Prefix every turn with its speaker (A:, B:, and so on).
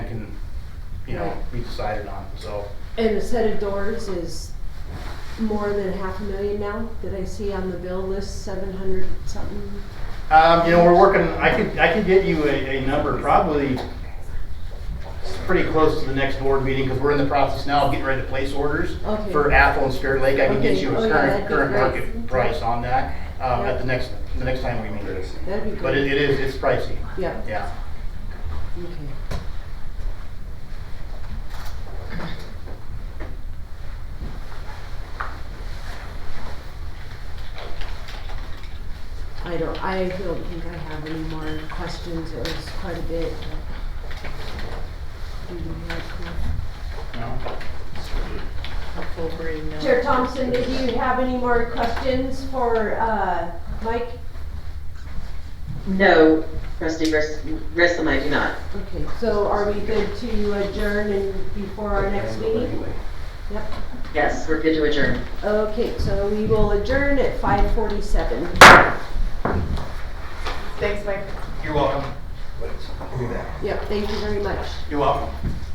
A: you know,
B: Right.
A: be decided on, so.
B: And a set of doors is more than half a million now, did I see on the bill list, seven hundred something?
A: Um, you know, we're working, I could, I could get you a, a number probably pretty close to the next board meeting, because we're in the process now of getting ready to place orders
B: Okay.
A: for Athol and Spirit Lake. I can get
B: Okay.
A: you a
B: Oh, yeah,
A: current,
B: that'd be
A: current
B: great.
A: market price on that, um,
B: Yeah.
A: at the next, the next time we meet.
B: That'd be great.
A: But it, it is, it's pricey,
B: Yeah,
A: yeah.
B: okay. I don't, I don't think I have any more questions, it was quite a bit. but- Do you have questions?
A: No?
B: Chair Thompson, did you have any more questions for uh, Mike?
C: No, trustee Grissom, I do not.
B: Okay, so are we good to adjourn and before our next meeting? Yep,
C: Yes, we're good to adjourn.
B: okay, so we will adjourn at 5:47.
A: You're welcome.
B: Yep, thank you very much.
A: You're welcome.